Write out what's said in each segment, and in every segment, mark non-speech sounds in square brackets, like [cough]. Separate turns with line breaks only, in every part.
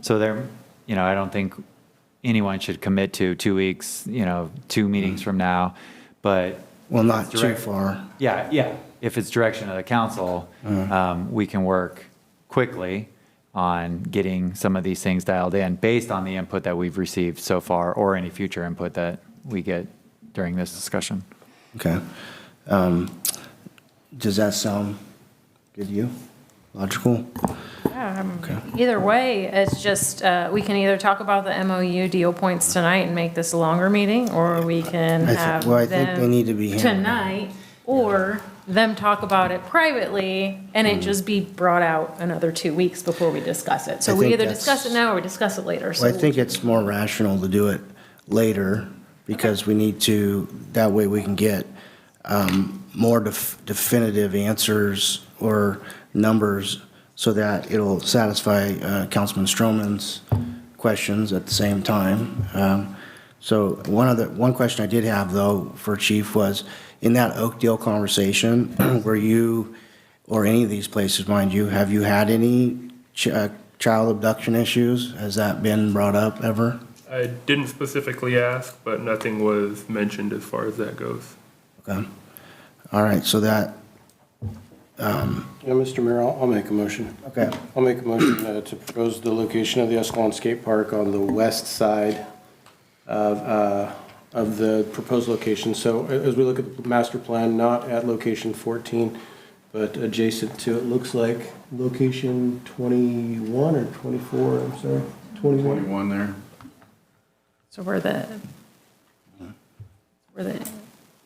So there, you know, I don't think anyone should commit to two weeks, you know, two meetings from now, but
Well, not too
Direct-
far.
yeah, yeah. If it's direction of the council, um, we can work quickly on getting some of these things dialed in based on the input that we've received so far or any future input that we get during this discussion.
Okay. Um, Does that sound good to you? Logical?
Either way, it's just, uh, we can either talk about the MOU deal points tonight and make this a longer meeting, or we can
I thi-
have
well, I think they
them
need to be here.
Tonight, or them talk about it privately, and
Hmm.
it just be brought out another two weeks before we discuss it.
I
So we
think
either
that's-
discuss it now or we discuss it later, so.
Well, I think it's more rational to do it later because we need to, that way we can get um, more def- definitive answers or numbers so that it'll satisfy uh, Councilman Stroman's questions at the same time. Um, So one other, one question I did have though for Chief was, in that Oakdale conversation, [clears throat] were you, or any of these places, mind you, have you had any ch- uh, child abduction issues? Has that been brought up ever?
I didn't specifically ask, but nothing was mentioned as far as that goes.
Okay. All right, so that,
Yeah, Mr. Mayor, I'll, I'll make a motion.
okay,
I'll make a motion uh, to propose the location of the Escalon Skate Park on the west side of, uh, of the proposed location. So a- as we look at the master plan, not at location 14, but adjacent to, it looks like location 21 or 24, I'm sorry, 21.
21 there.
So we're the, we're the,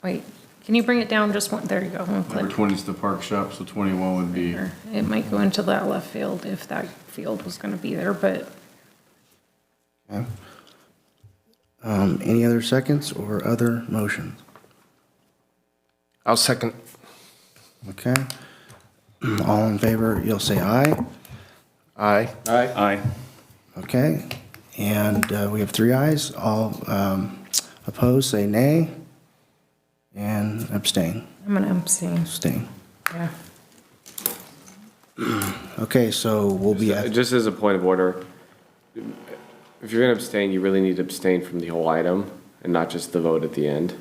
wait, can you bring it down just one, there you go. one
Number
click.
20 is the park shop, so 21 would be,
It might go into that left field if that field was gonna be there, but
um, any other seconds or other motions?
I'll second.
Okay. [clears throat] All in favor, you'll say aye.
Aye.
Aye.
aye.
Okay, and uh, we have three ayes. All um, opposed, say nay. And abstain,
I'm gonna abstain,
abstain.
yeah.
Okay, so we'll be, at-
Just as a point of order, if you're going to abstain, you really need to abstain from the whole item and not just the vote at the end.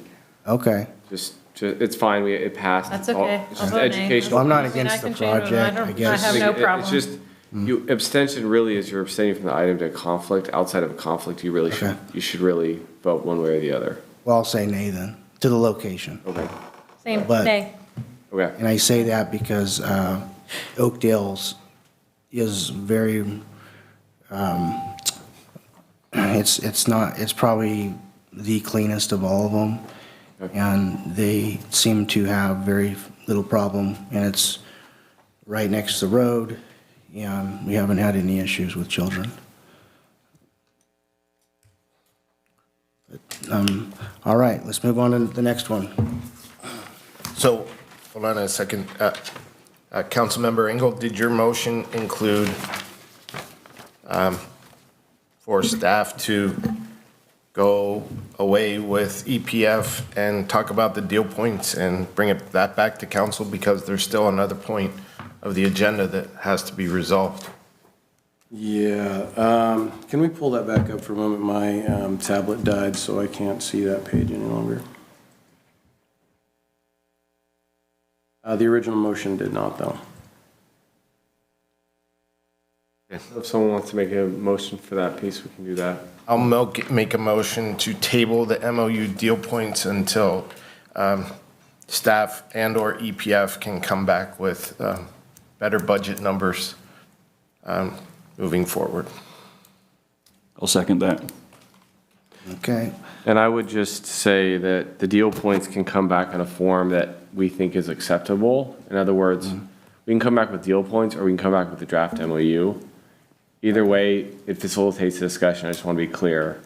okay.
Just, ju- it's fine, we, it passed.
That's
It's all-
okay.
It's
I'll
just
vote nay.
educational.
Well, I'm not
I mean, I
against the
can change my mind. I
project,
don't-
I guess.
I have no
It-
problem.
It's just, you, abstention really is you're abstaining from the item to conflict. Outside of a conflict, you really should,
Okay.
you should really vote one way or the other.
Well, I'll say nay then, to the location.
Okay,
Same,
but-
nay.
okay.
And I say that because uh, Oakdale's is very, um, it's, it's not, it's probably the cleanest of all of them. And they seem to have very little problem, and it's right next to the road, and we haven't had any issues with children. But, um, All right, let's move on to the next one.
So, hold on a second. Uh, uh, Councilmember Engel, did your motion include um, for staff to go away with EPF and talk about the deal points and bring it, that back to council because there's still another point of the agenda that has to be resolved?
Yeah, um, can we pull that back up for a moment? My um, tablet died, so I can't see that page any longer. Uh, the original motion did not, though.
If someone wants to make a motion for that piece, we can do that.
I'll milk- make a motion to table the MOU deal points until um, staff and/or EPF can come back with um, better budget numbers um, moving forward.
I'll second that.
Okay.
And I would just say that the deal points can come back in a form that we think is acceptable. In other words, we can come back with deal points or we can come back with the draft MOU. Either way, it facilitates the discussion. I just want to be clear.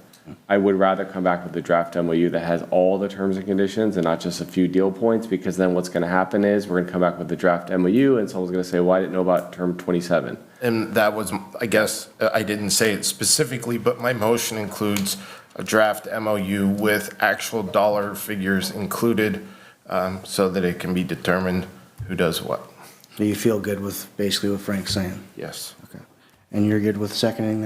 I would rather come back with the draft MOU that has all the terms and conditions and not just a few deal points because then what's going to happen is we're going to come back with the draft MOU and someone's going to say, well, I didn't know about term 27.
And that was, I guess, uh, I didn't say it specifically, but my motion includes a draft MOU with actual dollar figures included um, so that it can be determined who does what.
So you feel good with basically what Frank's saying?
Yes.
Okay. And you're good with seconding that?